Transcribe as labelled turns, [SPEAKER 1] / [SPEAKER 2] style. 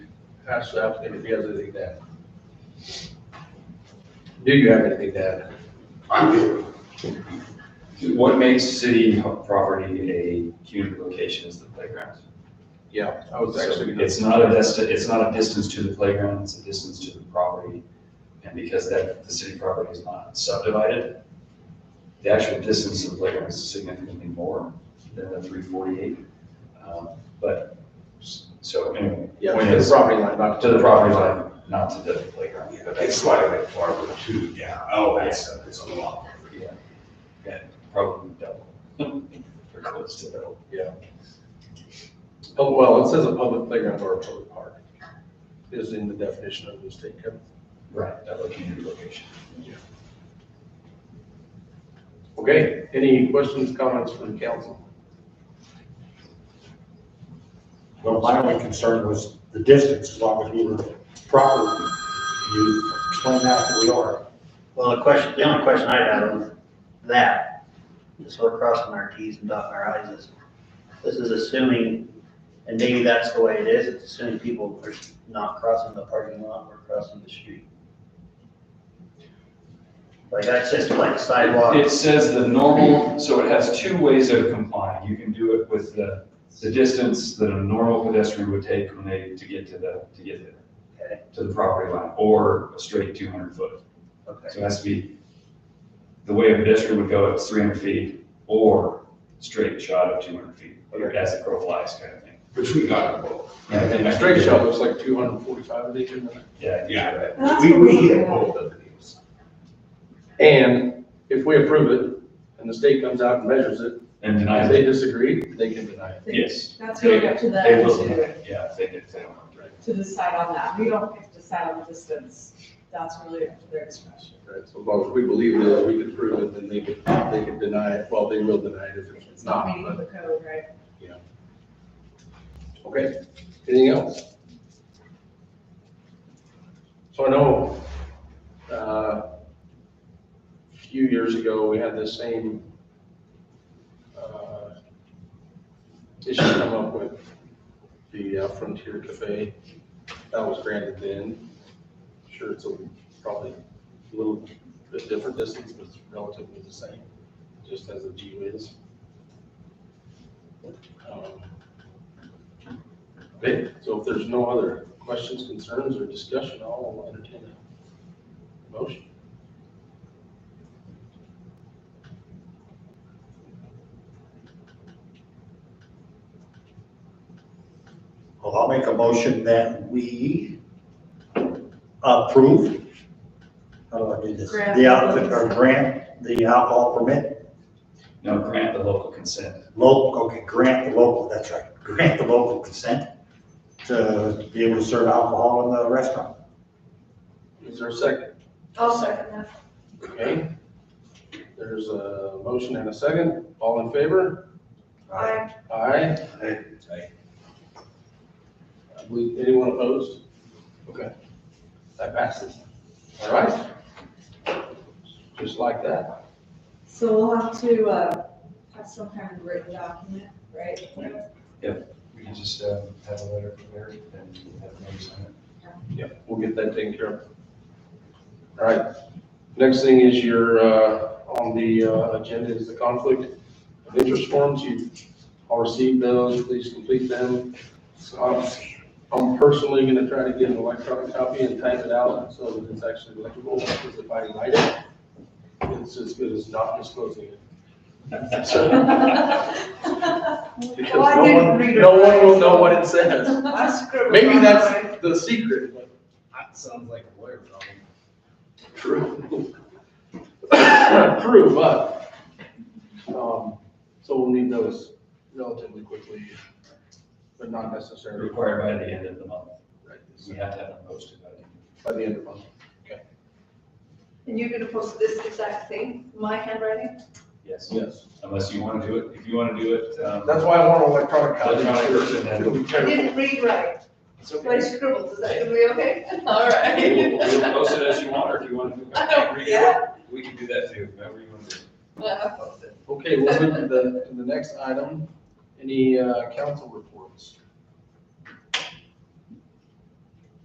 [SPEAKER 1] ask the applicant if he has anything to add. Do you have anything to add?
[SPEAKER 2] I'm good.
[SPEAKER 3] What makes city property a community location is the playground.
[SPEAKER 1] Yeah, I was
[SPEAKER 3] So
[SPEAKER 1] Oh, actually.
[SPEAKER 3] It's not a distance, it's not a distance to the playground, it's a distance to the property. And because that, the city property is not subdivided, the actual distance to the playground is significantly more than the three forty-eight. Um, But, s- so anyway,
[SPEAKER 1] Yeah,
[SPEAKER 3] point
[SPEAKER 1] to the
[SPEAKER 3] is,
[SPEAKER 1] property line, not
[SPEAKER 3] to the property line, not to the playground. But
[SPEAKER 2] It's
[SPEAKER 3] that's
[SPEAKER 2] slightly farther too, yeah. Oh, that's, it's a lot.
[SPEAKER 3] probably double. Or close to double.
[SPEAKER 1] Oh, well, it says a public playground or a public park is in the definition of the state code.
[SPEAKER 3] Right. Of a community location.
[SPEAKER 1] Okay, any questions, comments from the council?
[SPEAKER 4] Well, my only concern was the distance, as long as we were proper, you explained that we are.
[SPEAKER 5] Well, the question, the only question I had was that, just so we're crossing our Ts and dotting our Is, is this is assuming, and maybe that's the way it is, it's assuming people are not crossing the parking lot or crossing the street. Like, that's just like sidewalk,
[SPEAKER 3] It says the normal, so it has two ways of complying. You can do it with the, the distance that a normal pedestrian would take when they, to get to the, to get
[SPEAKER 5] Okay.
[SPEAKER 3] there, to the property line, or a straight two hundred foot.
[SPEAKER 5] okay,
[SPEAKER 3] So it has to be, the way a pedestrian would go, it's three hundred feet, or straight shot of two hundred feet, or as the crow flies kind of thing.
[SPEAKER 2] Which we got both.
[SPEAKER 3] And I think-
[SPEAKER 1] A straight shot looks like two hundred and forty-five of these,
[SPEAKER 3] Yeah.
[SPEAKER 2] Yeah.
[SPEAKER 6] And that's
[SPEAKER 2] We,
[SPEAKER 6] what
[SPEAKER 2] we
[SPEAKER 6] we
[SPEAKER 2] hit
[SPEAKER 6] had.
[SPEAKER 2] both of these.
[SPEAKER 1] and if we approve it and the state comes out and measures it,
[SPEAKER 3] And
[SPEAKER 1] if
[SPEAKER 3] denies
[SPEAKER 1] they
[SPEAKER 3] it,
[SPEAKER 1] disagree, they can deny it.
[SPEAKER 3] yes.
[SPEAKER 6] That's going up to them
[SPEAKER 3] They will, deny
[SPEAKER 6] to,
[SPEAKER 3] it. yeah, if they did, if they don't. want to.
[SPEAKER 6] to decide on that. We don't get to decide on the distance. That's really up to their discretion.
[SPEAKER 1] Right, so as long as we believe that we can prove it, then they could, they could deny it, well, they will deny it if
[SPEAKER 6] It's
[SPEAKER 1] it's
[SPEAKER 6] not
[SPEAKER 1] not,
[SPEAKER 6] meeting
[SPEAKER 1] but,
[SPEAKER 6] the code, right?
[SPEAKER 1] okay, anything else? So I know, uh, a few years ago, we had this same, uh, issue come up with the uh, Frontier Cafe, that was granted then, sure, it's a, probably a little bit different distance, but it's relatively the same, just as a G is. Um, Okay, so if there's no other questions, concerns, or discussion, I'll entertain a motion.
[SPEAKER 4] Well, I'll make a motion that we approve. How do I do this?
[SPEAKER 6] Grant.
[SPEAKER 4] The outfit, or grant, the alcohol permit,
[SPEAKER 3] No, grant the local consent.
[SPEAKER 4] local, okay, grant the local, that's right, grant the local consent to be able to serve alcohol in the restaurant.
[SPEAKER 1] Is there a second?
[SPEAKER 6] I'll second that.
[SPEAKER 1] Okay. There's a motion and a second. All in favor?
[SPEAKER 6] Aye.
[SPEAKER 1] Aye.
[SPEAKER 4] Aye.
[SPEAKER 1] I believe anyone opposed? Okay. That passes. All right. Just like that.
[SPEAKER 6] So we'll have to, uh, have some kind of written document, right?
[SPEAKER 3] We can just uh, have a letter prepared and have them sign it.
[SPEAKER 1] Yeah, we'll get that taken care of. All right, next thing is your, uh, on the, uh, agenda is the conflict of interest forms. You all received those, please complete them. Um, I'm personally gonna try to get an electronic copy and type it out so that it's actually legible, because if I write it, it's as good as not disclosing it. Because
[SPEAKER 6] Well, Oh, I
[SPEAKER 1] no
[SPEAKER 6] didn't
[SPEAKER 1] one-
[SPEAKER 6] read it
[SPEAKER 1] No one will know
[SPEAKER 6] right, so-
[SPEAKER 1] what it says.
[SPEAKER 6] I scribbled
[SPEAKER 1] Maybe
[SPEAKER 6] on
[SPEAKER 1] that's the secret, but
[SPEAKER 2] That sounds like a lawyer problem.
[SPEAKER 1] True. True, but, um, so we'll need those relatively quickly, but not necessarily
[SPEAKER 3] Required by the end of the month.
[SPEAKER 1] right this-
[SPEAKER 3] We have to have them posted by the end.
[SPEAKER 1] by the end of the month.
[SPEAKER 7] And you're gonna post this exact thing, my handwriting?
[SPEAKER 3] Yes,
[SPEAKER 1] Yes.
[SPEAKER 3] unless you want to do it, if you want to do it, um,
[SPEAKER 1] That's why I want an electronic copy.
[SPEAKER 3] Electronic version, then.
[SPEAKER 1] It'll be
[SPEAKER 7] I
[SPEAKER 1] terrible.
[SPEAKER 7] didn't read right,
[SPEAKER 3] it's
[SPEAKER 7] so I
[SPEAKER 3] okay.
[SPEAKER 7] scribbled, is that gonna be okay? All
[SPEAKER 3] We'll
[SPEAKER 7] right.
[SPEAKER 3] we'll post it as you want, or if you want to.
[SPEAKER 7] I don't- yeah.
[SPEAKER 3] We can do that too, whatever you want to do.
[SPEAKER 7] I'll post it.
[SPEAKER 1] Okay, we'll move to the, to the next item. Any, uh, council reports?